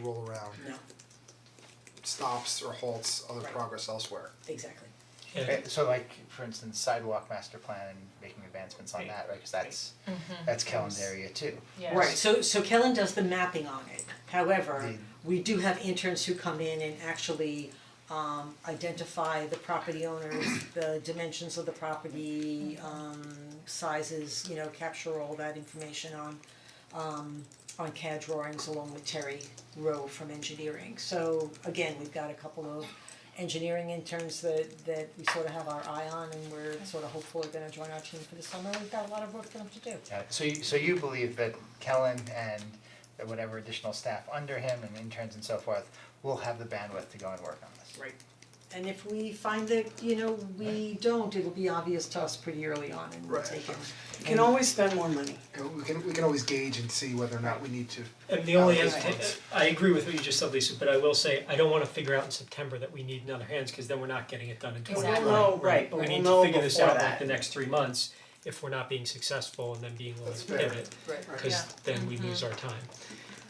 roll around, No, stops or halts other Right. progress elsewhere. exactly. Yeah, Eh, So like, for instance, sidewalk master plan, making advancements on Right, that, right, cause that's, that's Kellen's area too. Yes. Right, so so Kellen does the mapping on it. However, The- we do have interns who come in and actually um identify the property owners, the dimensions of the property, um sizes, you know, capture all that information on um on CAD drawings along with Terry Rowe from engineering. So again, we've got a couple of engineering interns that that we sort of have our eye on and we're sort of hopeful are gonna join our team for the summer. We've got a lot of work for them to do. Uh, So you, so you believe that Kellen and that whatever additional staff under him and interns and so forth will have the bandwidth to go and work on this? Right. And if we find that, you know, we don't, it'll be obvious to us pretty early on and we'll Right. take it. You can always spend more money. And we can, we can always gauge and see whether or not we need to, Uh, and the only, Right. hesita- I agree with what you just said, Lisa, but I will say, I don't wanna figure out in September that we need another hands, cause then we're not getting it done in twenty Exactly. twenty. No, right, but We we'll need know to figure this before out like that. the next three months, if we're not being successful and then being willing That's to fair. pivot, Right. cause then we lose our time.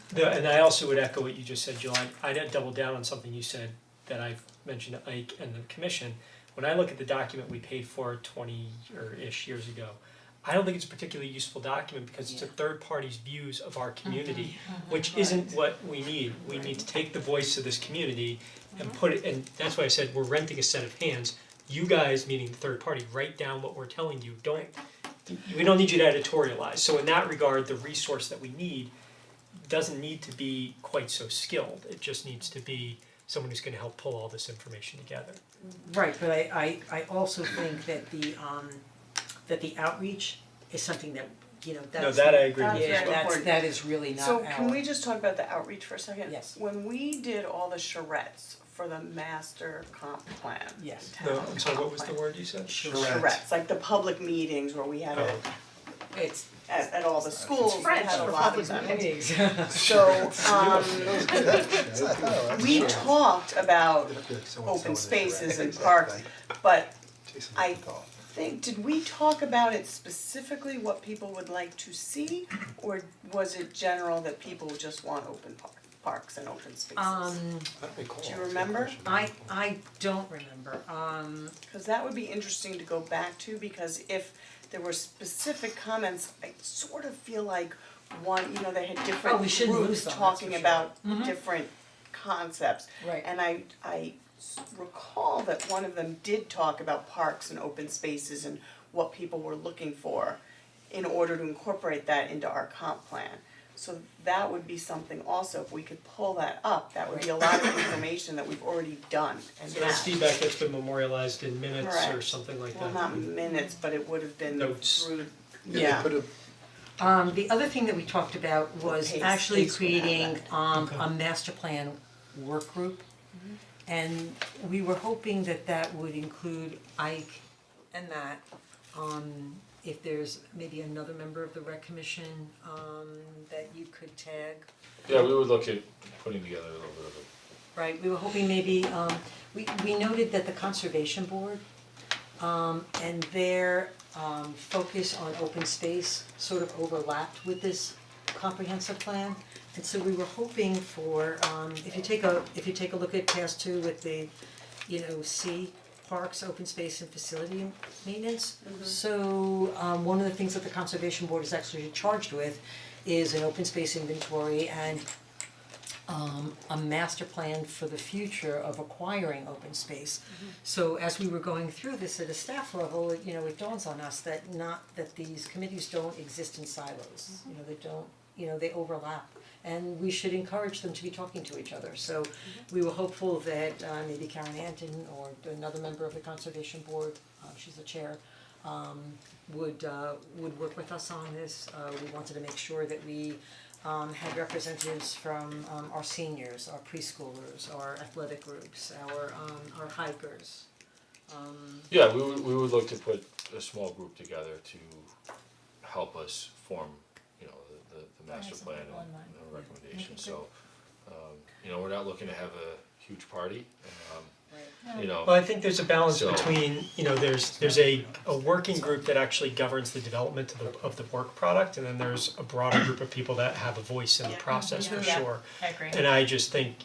The- and I also would echo what you just said, Jill, I I'd double down on something you said that I've mentioned to Ike and the commission. When I look at the document we paid for twenty or ish years ago, I don't think it's a particularly useful document because it's a third party's views of our community, which isn't what we need. We need to take the voice of this community and put it, and that's why I said we're renting a set of hands. You guys, meaning the third party, write down what we're telling you, don't, we don't need you to editorialize. So in that regard, the resource that we need doesn't need to be quite so skilled. It just needs to be someone who's gonna help pull all this information together. Right, but I I I also think that the um that the outreach is something that, you know, that's. that I agree with you. Yeah, that's Important. that is really not So our- can we just talk about the outreach for a second? Yes. When we did all the charrettes for the master comp plan. Yes. town No, I'm sorry, what was the comp word you said? plan, Charrette. Charrettes, like the public meetings where we had it Oh. It's at at all the schools, we French had a for lot public of them. meetings. So um we talked about open spaces and parks, but I think, did we talk about it specifically what people would like to see? Or was it general that people just want open par- parks and open spaces? Um Do you remember? I I don't remember, um Cause that would be interesting to go back to, because if there were specific comments, I sort of feel like one, you know, they had different Oh, we shouldn't lose them, groups that's for talking sure. Mm-hmm. about different concepts. Right. And I I s- recall that one of them did talk about parks and open spaces and what people were looking for in order to incorporate that into our comp plan. So that would be something also, if we could pull that up, that would be a lot of information that we've already done and So that's have. feedback that's been memorialized in minutes or Correct. something like Well, that. not minutes, but it would have been Notes. through, Yeah, yeah, they put a, Um the other thing that we talked about was Pace- actually Pace would have creating that. um a master plan work group. And we were hoping that that would include Ike and Matt. Um if there's maybe another member of the rec commission um that you could tag. Yeah, we would look at putting together a little bit of a, Right, we were hoping maybe, um, we, we noted that the conservation board, um, and their, um, focus on open space sort of overlapped with this comprehensive plan. And so we were hoping for, um, if you take a, if you take a look at task two with the, you know, C, parks, open space and facility maintenance. So, um, one of the things that the conservation board is actually charged with is an open space inventory and um a master plan for the future of acquiring open space. So as we were going through this at a staff level, you know, it dawns on us that not, that these committees don't exist in silos, you know, they don't, you know, they overlap. And we should encourage them to be talking to each other, so we were hopeful that uh maybe Karen Anton or another member of the conservation board, uh she's the chair, um would uh would work with us on this, uh we wanted to make sure that we um had representatives from um our seniors, our preschoolers, our athletic groups, our um our hikers. Um yeah, we would, we would look to put a small group together to help us form, you know, the, the, the master some plan people and in mind. and recommendations, so. Um, you know, we're not looking to have a huge party, um, right. you know. Well, I think there's a balance So- between, you know, there's there's a a working group that actually governs the development of the of the work product and then there's a broader group of people that have a voice in the process for Yeah. sure. I agree. And I just think,